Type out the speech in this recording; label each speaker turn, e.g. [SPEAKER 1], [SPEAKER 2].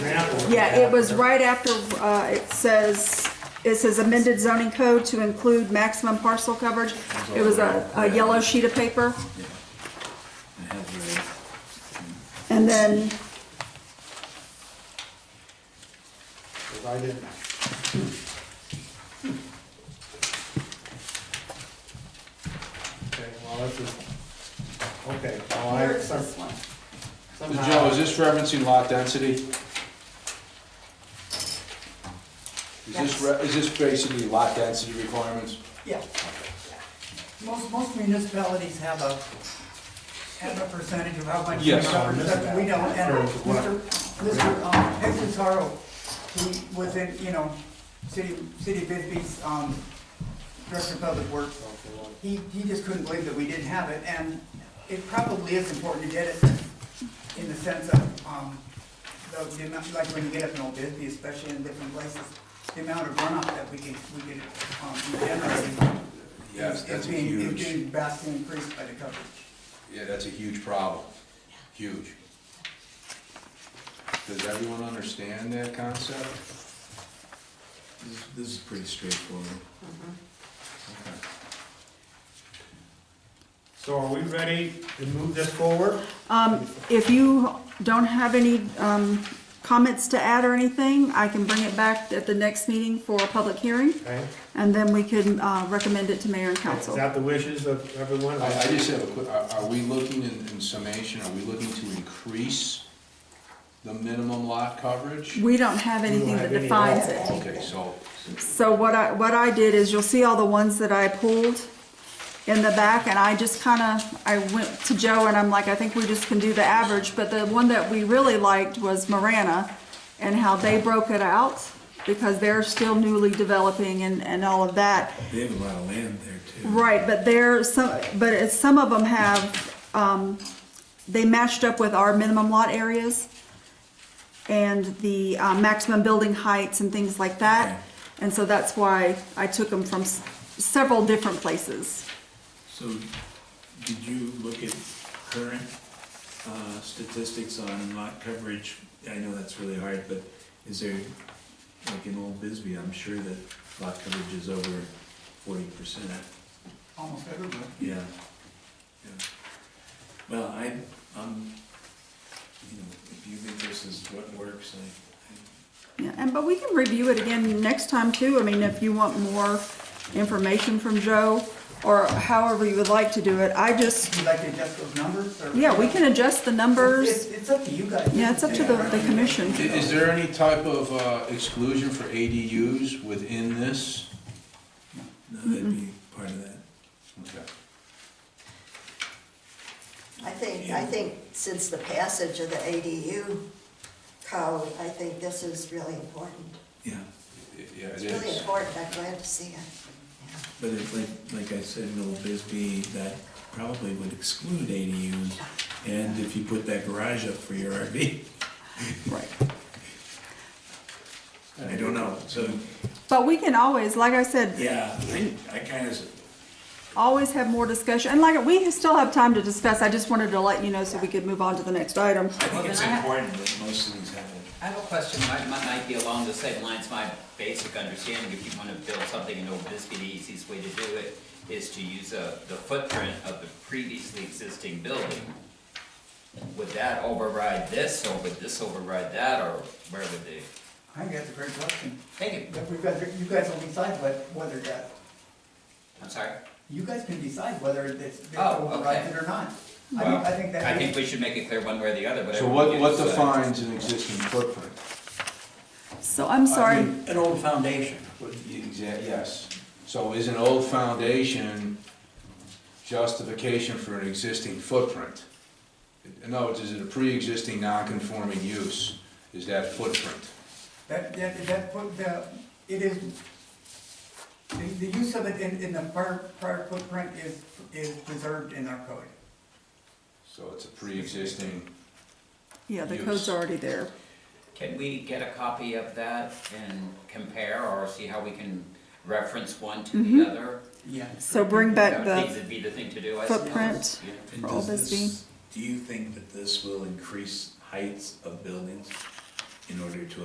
[SPEAKER 1] Yeah, it was right after, uh, it says, it says amended zoning code to include maximum parcel coverage. It was a, a yellow sheet of paper.
[SPEAKER 2] I have
[SPEAKER 1] And then,
[SPEAKER 3] Because I didn't, okay, well, this is, okay, well, I,
[SPEAKER 1] Where's
[SPEAKER 3] some-
[SPEAKER 1] this one?
[SPEAKER 4] So,
[SPEAKER 3] somehow.
[SPEAKER 4] Joe, is this referencing lot density? Is
[SPEAKER 5] Yes.
[SPEAKER 4] this, re- is this basically lot density requirements?
[SPEAKER 5] Yeah. Most, most municipalities have a, have a percentage of how much. they
[SPEAKER 4] Yes.
[SPEAKER 5] cover, but We don't, and Mr. Mr. um, Hector Sorrow, he was in, you know, City, City of Bisbee's, um, Director of Public Works. He, he just couldn't believe that we didn't have it, and it probably is important to get it in the sense of, um, the, the amount, like when you get up in Old Bisbee, especially in different places, the amount of runoff that we can, we get, um, generating.
[SPEAKER 4] Yes,
[SPEAKER 5] is-
[SPEAKER 4] that's
[SPEAKER 5] Is being, is
[SPEAKER 4] huge.
[SPEAKER 5] being vastly increased by the coverage.
[SPEAKER 4] Yeah, that's a huge problem, huge. Does everyone understand that concept?
[SPEAKER 2] This- This is pretty straightforward.
[SPEAKER 4] Mm-hmm. Okay.
[SPEAKER 3] So are we ready to move this forward?
[SPEAKER 1] um, if you don't have any, um, comments to add or anything, I can bring it back at the next meeting for a public hearing.
[SPEAKER 3] Okay,
[SPEAKER 1] And then we can, uh, recommend it to mayor and
[SPEAKER 3] is
[SPEAKER 1] council.
[SPEAKER 3] that the wishes of everyone?
[SPEAKER 4] I, I just have a quick, are, are we looking in, in summation, are we looking to increase the minimum lot coverage?
[SPEAKER 1] We don't have anything that
[SPEAKER 3] have any
[SPEAKER 1] defines
[SPEAKER 3] law.
[SPEAKER 1] it.
[SPEAKER 4] Okay, so,
[SPEAKER 1] So what I, what I did is you'll see all the ones that I pulled in the back and I just kind of, I went to Joe and I'm like, I think we just can do the average. But the one that we really liked was Marana and how they broke it out because they're still newly developing and, and all of that.
[SPEAKER 2] They have a lot of land there too.
[SPEAKER 1] Right, but there, some, but it's, some of them have, um, they matched up with our minimum lot areas and the uh, maximum building heights and things like
[SPEAKER 2] Okay.
[SPEAKER 1] that. And so that's why I took them from s- several different places.
[SPEAKER 2] So, did you look at current uh, statistics on lot coverage? I know that's really hard, but is there, like in Old Bisbee, I'm sure that lot coverage is over forty percent.
[SPEAKER 5] Almost everywhere.
[SPEAKER 2] Yeah. Yeah. Well, I, um, you know, if you think this is what works, I, I
[SPEAKER 1] Yeah, and, but we can review it again next time too. I mean, if you want more information from Joe or however you would like to do it. I just,
[SPEAKER 5] Would you like to adjust those numbers, or?
[SPEAKER 1] yeah, we can adjust the
[SPEAKER 5] It's,
[SPEAKER 1] numbers.
[SPEAKER 5] it's up to you guys.
[SPEAKER 1] Yeah, it's up to the, the commission.
[SPEAKER 4] i- is there any type of, uh, exclusion for ADUs within this?
[SPEAKER 2] No, that'd be part of that.
[SPEAKER 4] Okay.
[SPEAKER 6] I think, I think since the passage of the ADU code, I think this is really important.
[SPEAKER 2] Yeah,
[SPEAKER 4] Y- Yeah, it
[SPEAKER 6] It's really
[SPEAKER 4] is.
[SPEAKER 6] important, I'm glad to see it.
[SPEAKER 2] but it's like, like I said, in Old Bisbee, that probably would exclude ADUs, and if you put that garage up for your RV,
[SPEAKER 1] Right.
[SPEAKER 2] I don't know, so,
[SPEAKER 1] But we can always, like I said,
[SPEAKER 2] yeah, I, I kinda, s-
[SPEAKER 1] always have more discussion, and like, we still have time to discuss, I just wanted to let you know so we could move on to the next item.
[SPEAKER 2] I think it's
[SPEAKER 7] then I-
[SPEAKER 2] important that most of these happen.
[SPEAKER 7] I have a question, mine, mine might be along the same lines, my basic understanding, if you wanna build something in Old Bisbee, the easiest way to do it is to use a, the footprint of the previously existing building. Would that override this, or would this override that, or where would they,
[SPEAKER 5] I think that's a great question.
[SPEAKER 7] thank you,
[SPEAKER 5] But we've got, you guys will decide what, whether that,
[SPEAKER 7] I'm sorry.
[SPEAKER 5] you guys can decide whether it's, it's
[SPEAKER 7] Oh, okay.
[SPEAKER 5] overrides it or not. I think,
[SPEAKER 7] Well,
[SPEAKER 5] I think that.
[SPEAKER 7] I think we should make it clear one way or the other, whatever.
[SPEAKER 4] So
[SPEAKER 7] we
[SPEAKER 4] what,
[SPEAKER 7] do
[SPEAKER 4] what
[SPEAKER 7] decides.
[SPEAKER 4] defines an existing footprint?
[SPEAKER 1] So I'm sorry,
[SPEAKER 8] An old foundation.
[SPEAKER 4] Exactly, yes. So is an old foundation justification for an existing footprint? In other words, is it a pre-existing non-conforming use? Is that footprint?
[SPEAKER 5] That, that, that, put the, it is, the, the use of it in, in the prior, prior footprint is, is preserved in our code.
[SPEAKER 4] So it's a pre-existing,
[SPEAKER 1] yeah, the code's already there.
[SPEAKER 7] Can we get a copy of that and compare, or see how we can reference one to the
[SPEAKER 5] Mm-hmm.
[SPEAKER 7] other?
[SPEAKER 5] Yeah.
[SPEAKER 1] So bring back
[SPEAKER 7] That would
[SPEAKER 1] the,
[SPEAKER 7] be- be the thing to do, I suppose.
[SPEAKER 1] footprint.
[SPEAKER 7] Yeah.
[SPEAKER 2] And
[SPEAKER 1] For Old
[SPEAKER 2] does this-
[SPEAKER 1] Bisbee.
[SPEAKER 2] Do you think that this will increase heights of buildings in order to